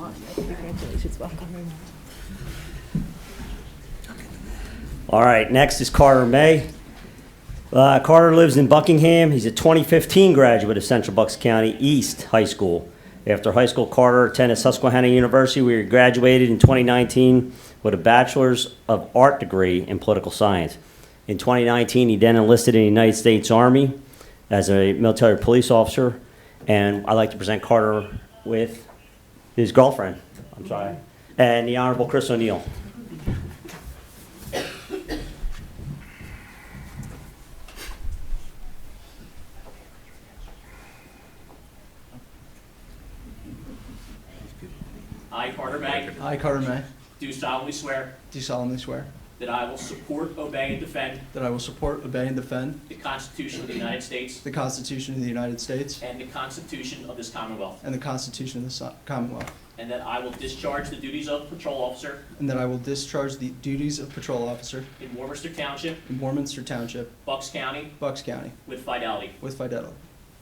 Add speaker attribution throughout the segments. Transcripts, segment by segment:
Speaker 1: on. Congratulations, welcome.
Speaker 2: All right, next is Carter May. Uh, Carter lives in Buckingham. He's a 2015 graduate of Central Bucks County East High School. After high school, Carter attended Susquehanna University, where he graduated in 2019 with a Bachelor's of Art degree in Political Science. In 2019, he then enlisted in the United States Army as a military police officer. And I'd like to present Carter with his girlfriend, I'm sorry, and the Honorable Chris O'Neill.
Speaker 3: I, Carter May,
Speaker 4: I, Carter May,
Speaker 3: do solemnly swear
Speaker 4: do solemnly swear
Speaker 3: that I will support, obey, and defend
Speaker 4: that I will support, obey, and defend
Speaker 3: the Constitution of the United States
Speaker 4: the Constitution of the United States
Speaker 3: and the Constitution of this Commonwealth,
Speaker 4: and the Constitution of the So- Commonwealth,
Speaker 3: and that I will discharge the duties of patrol officer
Speaker 4: and that I will discharge the duties of patrol officer
Speaker 3: in Warmminster Township,
Speaker 4: in Warminster Township,
Speaker 3: Bucks County,
Speaker 4: Bucks County,
Speaker 3: with fidelity.
Speaker 4: with fidelity.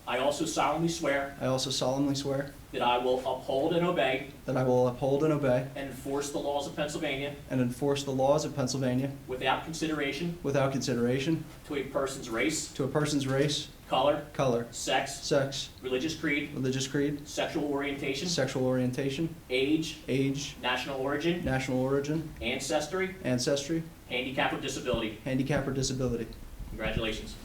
Speaker 3: I also solemnly swear
Speaker 4: I also solemnly swear
Speaker 3: that I will uphold and obey
Speaker 4: that I will uphold and obey
Speaker 3: and enforce the laws of Pennsylvania
Speaker 4: and enforce the laws of Pennsylvania
Speaker 3: without consideration
Speaker 4: without consideration
Speaker 3: to a person's race,
Speaker 4: to a person's race,
Speaker 3: color,
Speaker 4: color,
Speaker 3: sex,
Speaker 4: sex,
Speaker 3: religious creed,
Speaker 4: religious creed,
Speaker 3: sexual orientation,
Speaker 4: sexual orientation,
Speaker 3: age,
Speaker 4: age,
Speaker 3: national origin,
Speaker 4: national origin,
Speaker 3: ancestry,
Speaker 4: ancestry,
Speaker 3: handicap, or disability.
Speaker 4: handicap, or disability.
Speaker 3: Congratulations.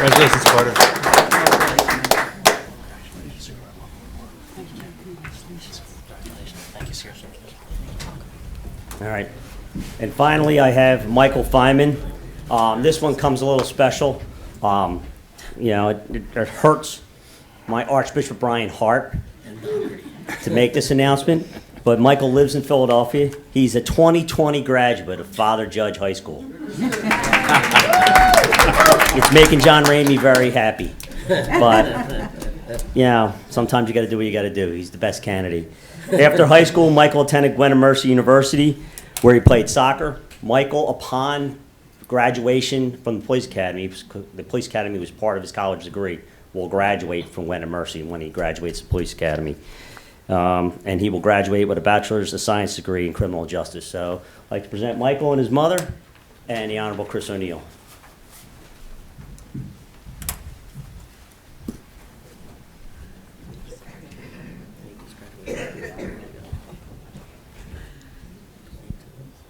Speaker 5: Congratulations, Carter.
Speaker 2: All right. And finally, I have Michael Feynman. Um, this one comes a little special. Um, you know, it, it- it hurts my Archbishop Brian Hart to make this announcement, but Michael lives in Philadelphia. He's a 2020 graduate of Father Judge High School. it's making John Ramey very happy. But, you know, sometimes you got to do what you got to do. He's the best candidate. After high school, Michael attended Gwen Mercy University, where he played soccer. Michael, upon graduation from the police academy, the police academy was part of his college degree, will graduate from Gwen Mercy when he graduates the police academy. Um, and he will graduate with a bachelor's of science degree in criminal justice. So I'd like to present Michael and his mother and the Honorable Chris O'Neill.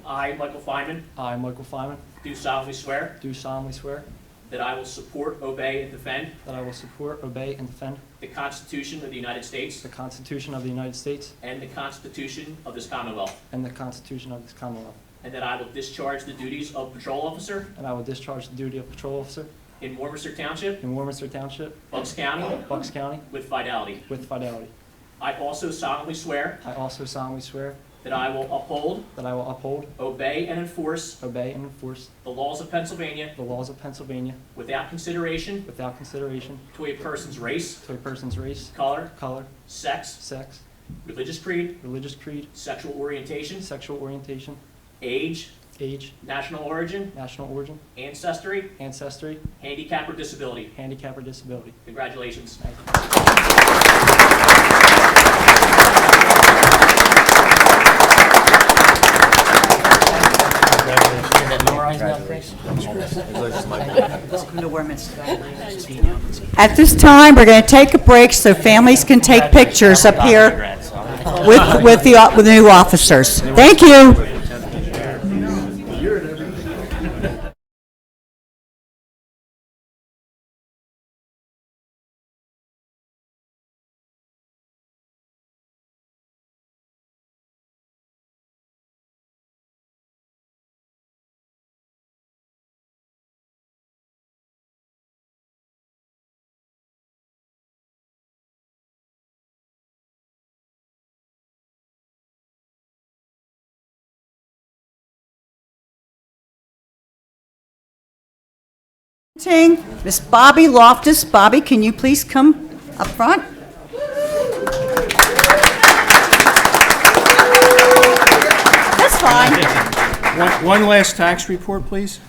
Speaker 3: I, Michael Feynman,
Speaker 4: I, Michael Flyman,
Speaker 3: do solemnly swear
Speaker 4: do solemnly swear
Speaker 3: that I will support, obey, and defend
Speaker 4: that I will support, obey, and defend
Speaker 3: the Constitution of the United States
Speaker 4: the Constitution of the United States
Speaker 3: and the Constitution of this Commonwealth,
Speaker 4: and the Constitution of this Commonwealth,
Speaker 3: and that I will discharge the duties of patrol officer
Speaker 4: and I will discharge the duty of patrol officer
Speaker 3: in Warmminster Township,
Speaker 4: in Warminster Township,
Speaker 3: Bucks County,
Speaker 4: Bucks County,
Speaker 3: with fidelity.
Speaker 4: with fidelity.
Speaker 3: I also solemnly swear
Speaker 4: I also solemnly swear
Speaker 3: that I will uphold,
Speaker 4: that I will uphold,
Speaker 3: obey, and enforce
Speaker 4: obey, and enforce
Speaker 3: the laws of Pennsylvania
Speaker 4: the laws of Pennsylvania
Speaker 3: without consideration
Speaker 4: without consideration
Speaker 3: to a person's race,
Speaker 4: to a person's race,
Speaker 3: color,
Speaker 4: color,
Speaker 3: sex,
Speaker 4: sex,
Speaker 3: religious creed,
Speaker 4: religious creed,
Speaker 3: sexual orientation,
Speaker 4: sexual orientation,
Speaker 3: age,
Speaker 4: age,
Speaker 3: national origin,
Speaker 4: national origin,
Speaker 3: ancestry,
Speaker 4: ancestry,
Speaker 3: handicap, or disability.
Speaker 4: handicap, or disability.
Speaker 3: Congratulations.
Speaker 4: Thank you.
Speaker 1: Welcome to Warminster.
Speaker 6: At this time, we're going to take a break so families can take pictures up here with, with the, uh, with the new officers. Thank you. Ting, Miss Bobby Loftus. Bobby, can you please come up front? That's fine.
Speaker 7: One one last tax report, please.